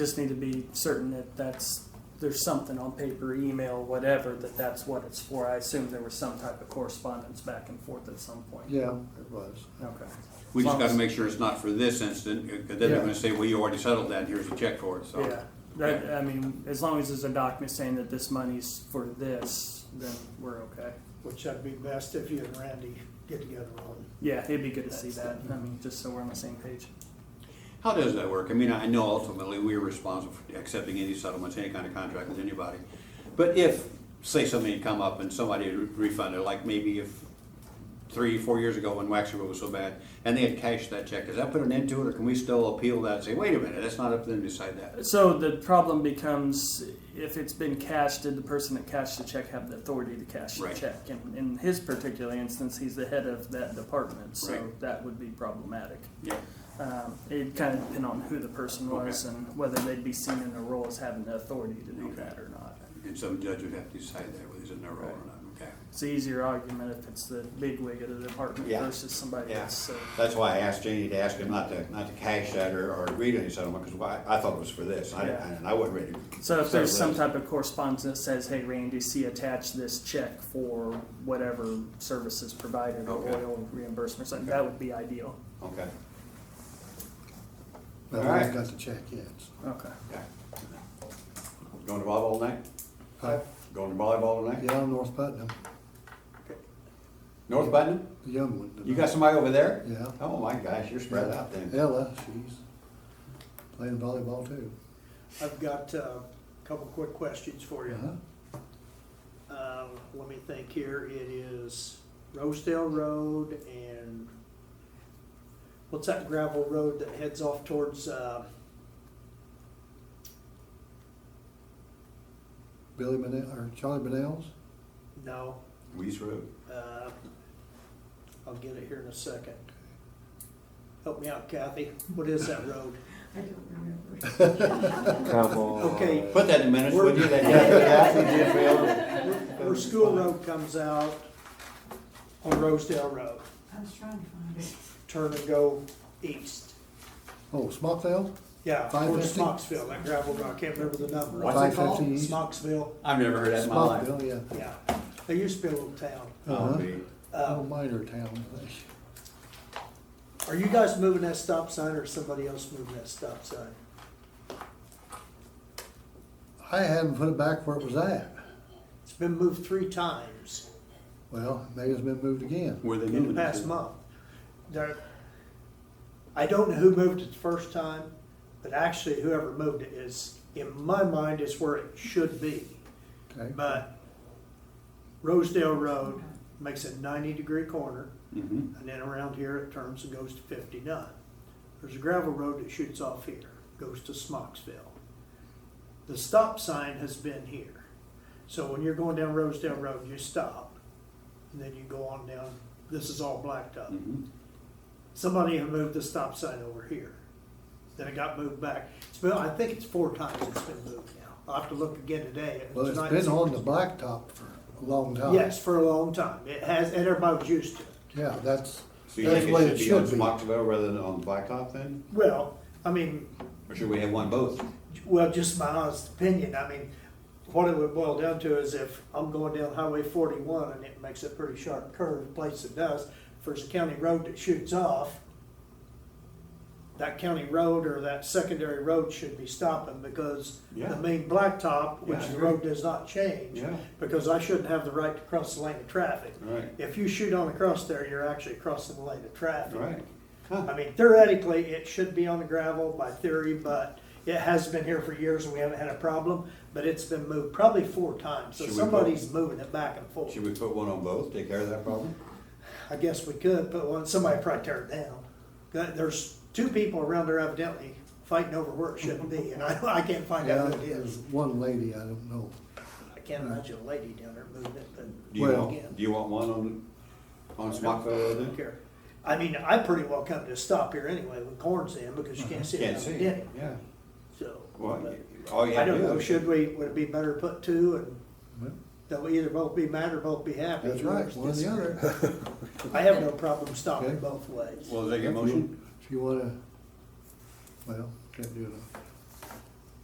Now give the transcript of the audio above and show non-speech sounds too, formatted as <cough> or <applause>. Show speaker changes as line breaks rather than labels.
Just need to be certain that that's, there's something on paper, email, whatever, that that's what it's for. I assume there was some type of correspondence back and forth at some point.
Yeah, it was.
Okay.
We just gotta make sure it's not for this incident, because then they're
Yeah.
gonna say, well, you already settled that, here's a check for it, so.
Yeah, that, I mean, as long as there's a document saying that this money's for this, then we're okay.
Which I'd be best if you and Randy get together on.
Yeah, it'd be good to see that, I mean, just so we're on the same page.
How does that work? I mean, I know ultimately we're responsible for accepting any settlements, any kind of contract with anybody. But if, say something had come up and somebody had refunded, like maybe if three, four years ago when Waxahachie was so bad, and they had cashed that check, does that put an end to it, or can we still appeal that and say, wait a minute, that's not up to them to decide that?
So the problem becomes if it's been cashed, did the person that cashed the check have the authority to cash the
Right.
check? And in his particular instance, he's the head of that department, so
Right.
that would be problematic.
Yeah.
Um, it'd kind of depend on who the person was and whether they'd be seen in their role as having the authority to do
Okay.
that or not.
And some judge would have to decide that, whether it's in their role or not, okay?
It's an easier argument if it's the bigwig of the department
Yeah.
versus somebody
Yeah.
else. So,
That's why I asked Janie to ask him not to, not to cash that or, or agree to any settlement, because why, I thought it was for this, I,
Yeah.
and I wasn't ready. to
so if
settle
there's some
this.
type of correspondence that says, "Hey, Randy, see attached this check for whatever services provided or
Okay.
oil reimbursement," or something that would be ideal.
Okay,
But we
All
haven't
right.
got the check yet. so.
Okay.
yeah. Going to volleyball tonight?
Uh,
Going to volleyball tonight?
Yeah, North Putnam,
North Button?
the young one.
You got somebody over there?
Yeah.
Oh my gosh, you're spread out then.
Ella, she's playing volleyball too.
I've got uh, a couple quick questions for you.
Uh-huh.
Uh, Let me think here. It is Rosedale Road and what's that gravel road that heads off towards, uh,
Billy Manel, or Charlie Manel's,
no,
Weeze Road.
uh, I'll get it here in a second. Help me out Kathy. What is that road?
I don't remember.
Okay.
Put that in minutes, would you? That
Where School Road comes out on Rosedale Road,
I was trying to find it.
turn and go east.
oh, Smockville,
Yeah, towards
550?
Smoxville, that gravel road, I can't remember the number.
What's
it called? 550 east.
Smoxville,
I've never heard that in my life.
Smockville, yeah.
yeah. There used to be a little town.
Oh,
Uh-huh.
gee.
Little
Uh,
minor town, I think.
Are you guys moving that stop sign or is somebody else moving that stop sign?
I hadn't put it back where it was at.
It's been moved three times
Well, maybe it's been moved again.
Where they
in the
moving it
past
to?
month. There, I don't know who moved it the first time, but actually whoever moved it is, in my mind, is where it should be.
Okay,
But Rosedale Road makes a ninety degree corner
Mhm.
and then around here it turns and goes to fifty-nine. There's a gravel road that shoots off here, goes to Smoxville. The stop sign has been here. So when you're going down Rosedale Road, you stop and then you go on down, this is all blacked up.
Mm-hmm.
Mhm.
Somebody had moved the stop sign over here. Then it got moved back. It's been, I think it's four times it's been moved now. I'll have to look again today.
Well, it's
Tonight-
been on the blacktop for a long time.
Yes, for a long time. It has, and everybody was used to it.
Yeah, that's,
So you
that's
think
the way
it
it
should
should
be on
be.
Smoxville rather than on Blacktop then?
Well, I mean,
Or should we have one both?
well, just my honest opinion, I mean, what it would boil down to is if I'm going down Highway forty-one and it makes a pretty sharp curve, place it does, if there's a county road that shoots off, that county road or that secondary road should be stopping because
Yeah.
the main blacktop, which
Yeah, I
the
agree.
road does not change.
Yeah.
Because I shouldn't have the right to cross the lane of traffic.
Right.
If you shoot on across there, you're actually crossing the lane of traffic.
Right.
I mean, theoretically, it should be on the gravel by theory, but it has been here for years and we haven't had a problem, but it's been moved probably four times, so
Should we
somebody's moving it back and forth.
Should we put one on both, take care of that problem?
I guess we could, but one, somebody probably tear it down. There- There's two people around there evidently fighting over where it shouldn't be, and I, I can't find
Yeah,
out who it
there's
is.
one lady, I don't know.
I can't imagine a lady down there moving it, but
Do you
Well-
want, do you want one on, on Smockville Road
I
then?
don't care. I mean, I pretty well come to a stop here anyway when corn's in, because you can't see it
Uh-huh. Can't
down
see,
the
it.
ditty,
yeah.
so.
Well,
but-
you- all you
I
have to
don't
do
know,
is-
should we, would it be better to put two and
Well,
they'll either both be mad or both be happy?
That's right, one or the other.
I
<laughs>
have no problem stopping
Okay.
both ways.
Well, is that your motion?
If you wanna, well, can't do it.